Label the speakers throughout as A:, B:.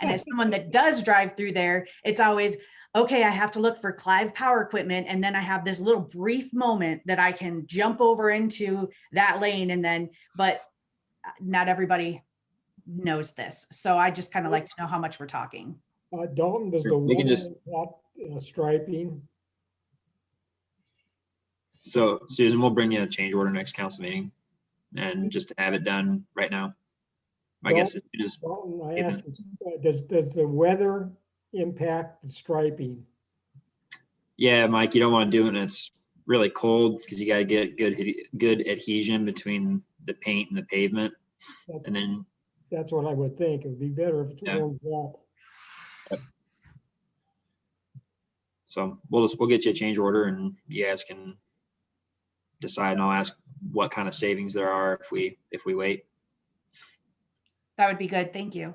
A: And as someone that does drive through there, it's always, okay, I have to look for Clive Power Equipment. And then I have this little brief moment that I can jump over into that lane and then, but uh, not everybody knows this. So I just kind of like to know how much we're talking.
B: Uh, Dalton, does the
C: Sure, we
B: one
C: can just-
B: lot uh, striping,
C: So Susan, we'll bring you a change order next council meeting and just to have it done right now. I guess it is,
B: Dalton, I
C: Yeah.
B: asked, uh, does, does the weather impact the striping?
C: yeah, Mike, you don't want to do it and it's really cold because you got to get good, adhe- good adhesion between the paint and the pavement.
B: That's-
C: And then,
B: That's what I would think. It would be better if it's
C: Yeah.
B: one lot.
C: so we'll just, we'll get you a change order and you guys can decide and I'll ask what kind of savings there are if we, if we wait.
A: That would be good. Thank you.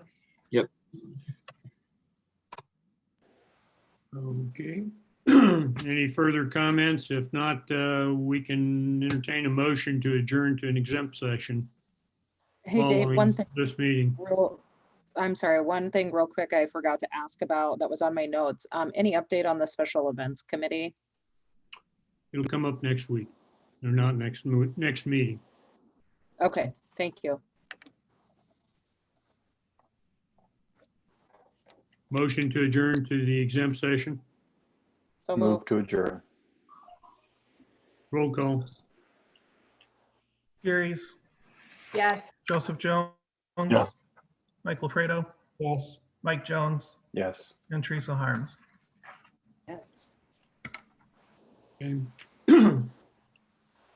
D: Okay. Any further comments? If not, uh, we can entertain a motion to adjourn to an exempt session.
E: Hey, Dave,
D: following
E: one thing,
D: This meeting.
E: real, I'm sorry, one thing real quick I forgot to ask about that was on my notes. Um, any update on the special events committee?
D: It'll come up next week. Or not next, mo- next meeting.
E: Okay, thank you.
D: Motion to adjourn to the exempt session.
E: So
F: Move
E: moved.
F: to adjourn.
D: Roll call.
G: Gary's,
A: Yes.
G: Joseph Jones.
F: Yes.
G: Mike LaFredo,
B: Yes.
G: Mike Jones,
F: Yes.
G: and Teresa Harms.
E: Yes.
D: Okay.